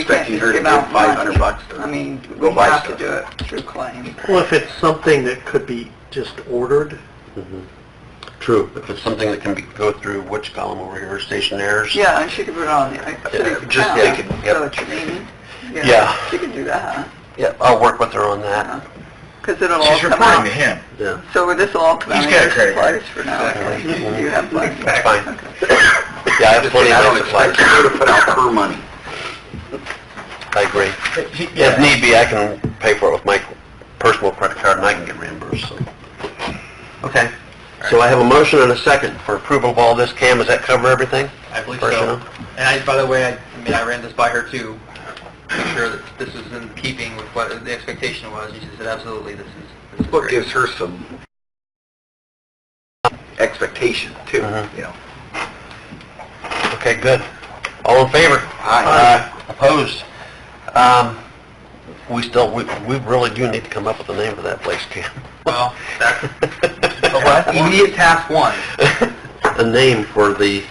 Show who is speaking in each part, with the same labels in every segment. Speaker 1: expecting her to
Speaker 2: It's about
Speaker 1: give 500
Speaker 2: money.
Speaker 1: bucks to
Speaker 2: I mean,
Speaker 1: go
Speaker 2: we
Speaker 1: buy
Speaker 2: have to
Speaker 1: stuff.
Speaker 2: do it through claim.
Speaker 3: Well, if it's something that could be just ordered,
Speaker 4: Mm-hmm. True, if it's something that can be, go through, which column over here, stationers?
Speaker 2: Yeah, and she could put it on the uh, city account.
Speaker 4: just they could- yep.
Speaker 2: So what you mean?
Speaker 4: Yeah.
Speaker 2: She could do that,
Speaker 4: Yeah, I'll work with her on
Speaker 2: Uh-huh.
Speaker 4: that.
Speaker 2: because it'll all
Speaker 1: She's
Speaker 2: come
Speaker 1: reporting to him.
Speaker 2: out.
Speaker 4: Yeah.
Speaker 2: So this will all come out
Speaker 1: He's
Speaker 2: of
Speaker 1: got a
Speaker 2: your
Speaker 1: credit card.
Speaker 2: supplies for now, at least.
Speaker 4: Mhm.
Speaker 2: You have plenty.
Speaker 4: Fine. Yeah, I have plenty
Speaker 1: I
Speaker 4: of
Speaker 1: don't
Speaker 4: supplies.
Speaker 1: expect her to put out her money.
Speaker 4: I agree. If need be, I can pay for it with my personal credit card and I can get reimbursed, so. Okay. So I have a motion and a second for approval of all this. Cam, does that cover everything?
Speaker 5: I believe
Speaker 4: Personnel?
Speaker 5: so. And I, by the way, I, I mean, I ran this by her too, make sure that this is in keeping with what the expectation was, and she said, absolutely, this is, this is
Speaker 1: What
Speaker 5: great.
Speaker 1: gives her some expectation too,
Speaker 4: Uh-huh.
Speaker 1: you know?
Speaker 4: Okay, good. All in favor?
Speaker 1: Aye.
Speaker 4: Aye. Opposed? Um, we still, we, we really do need to come up with a name for that place, Cam.
Speaker 5: Well, that's, well, immediate task one.
Speaker 4: a name for the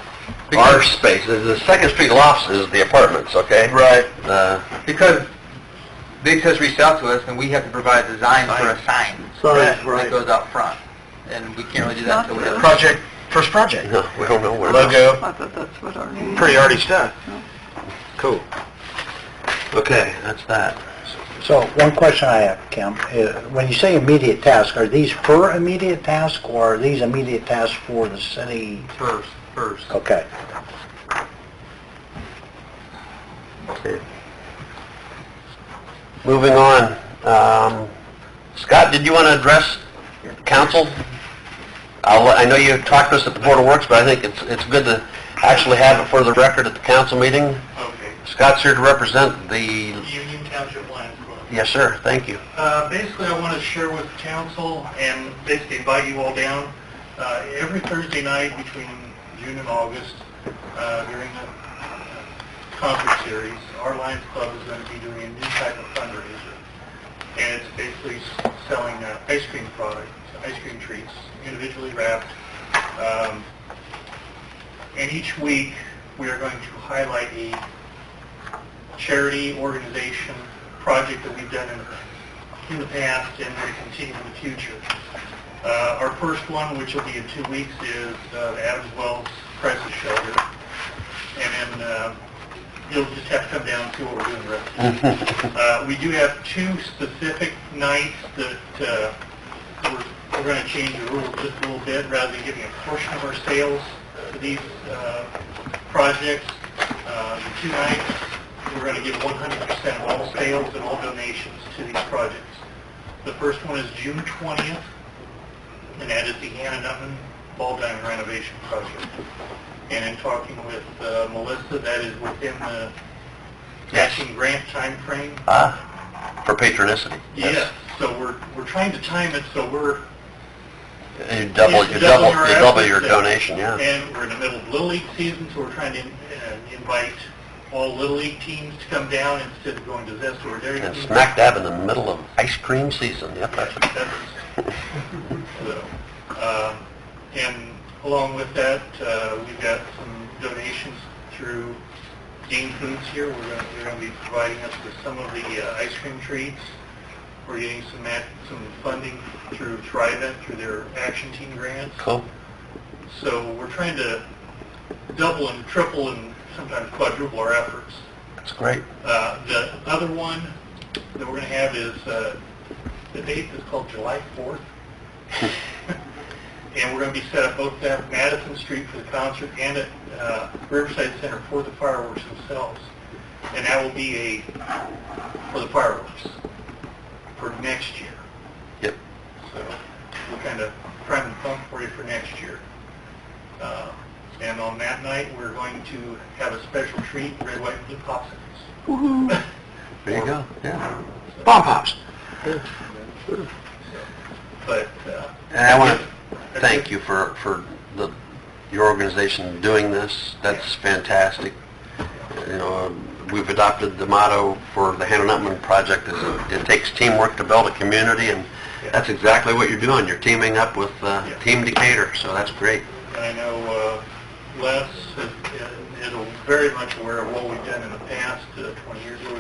Speaker 4: our space. The- The Second Street Lofts is the apartments, okay?
Speaker 5: Right.
Speaker 4: Uh,
Speaker 5: Because Biggs has reached out to us, and we have to provide a design for a sign.
Speaker 3: Sign, right.
Speaker 5: That goes out front, and we can't really do
Speaker 2: Not
Speaker 5: that until we have...
Speaker 2: really.
Speaker 1: Project, first project.
Speaker 4: no, we don't know where.
Speaker 2: I thought that's what our name
Speaker 1: Pretty already done.
Speaker 4: Cool. Okay, that's that.
Speaker 6: So, one question I have, Kim, is when you say immediate task, are these her immediate task, or are these immediate tasks for the city?
Speaker 5: First, first.
Speaker 6: Okay.
Speaker 4: Okay. Moving on. Um, Scott, did you want to address council? I'll, let- I know you talked to us at the Board of Works, but I think it's, it's good to actually have it for the record at the council meeting.
Speaker 7: Okay,
Speaker 4: Scott's here to represent the,
Speaker 7: Union Township Lions Club.
Speaker 4: yes, sir, thank you.
Speaker 7: Uh, basically, I want to share with council and basically invite you all down. Uh, every Thursday night between June and August, uh, during the uh, concert series, our Lions Club is going to be doing a new type of fundraiser. And it's basically s- selling uh, ice cream products, ice cream treats, individually wrapped. Um, and each week, we are going to highlight a charity, organization, project that we've done in, in the past and will continue in the future. Uh, our first one, which will be in two weeks, is uh, the Adams Wells Crisis Shelter. And then uh, you'll just have to come down and see what we're doing the rest of the week. Uh, we do have two specific nights that uh, we're, we're going to change the rules just a little bit. Rather than giving a portion of our sales to these uh, projects, uh, the two nights we're going to give 100% of all sales and all donations to these projects. The first one is June 20th, and that is the Hannah Nutman Ball Diamond Renovation Project. And in talking with uh, Melissa, that is within the matching grant timeframe.
Speaker 4: Ah, for patronicity.
Speaker 7: Yes, so we're, we're trying to time it so we're,
Speaker 4: You double, you
Speaker 7: It's
Speaker 4: double,
Speaker 7: double
Speaker 4: you
Speaker 7: our
Speaker 4: double your
Speaker 7: efforts there.
Speaker 4: donation, yeah.
Speaker 7: and we're in the middle of Little League season, so we're trying to uh, invite all Little League teams to come down instead of going to Zest or Dairy
Speaker 4: And
Speaker 7: Queen.
Speaker 4: smack dab in the middle of ice cream season, yep, that's it.
Speaker 7: So, um, And along with that, uh, we've got some donations through Dean Foods here. We're going, they're going to be providing us with some of the uh, ice cream treats. We're getting some, act- some funding through Thrivent, through their Action Team grants.
Speaker 4: Cool.
Speaker 7: So we're trying to double and triple and sometimes quadruple our efforts.
Speaker 4: That's great.
Speaker 7: Uh, The other one that we're going to have is, uh, the date is called July 4th. And we're going to be set up both at Madison Street for the concert and at uh, Riverside Center for the fireworks themselves. And that will be a, for the fireworks, for next year.
Speaker 4: Yep.
Speaker 7: So we're kind of priming the pump for you for next year. Uh, And on that night, we're going to have a special treat, red, white, and blue popsicles.
Speaker 4: There you go, yeah. Bomb pops.
Speaker 7: But, uh,
Speaker 4: And I want to thank you for, for the, your organization doing this. That's fantastic. You know, um, we've adopted the motto for the Hannah Nutman Project is it takes teamwork to build a community, and that's exactly what you're doing. You're teaming up with, uh, Team Decatur, so that's great.
Speaker 7: I know uh, Les has- is very much aware of what we've done in the past, uh, 20 years ago,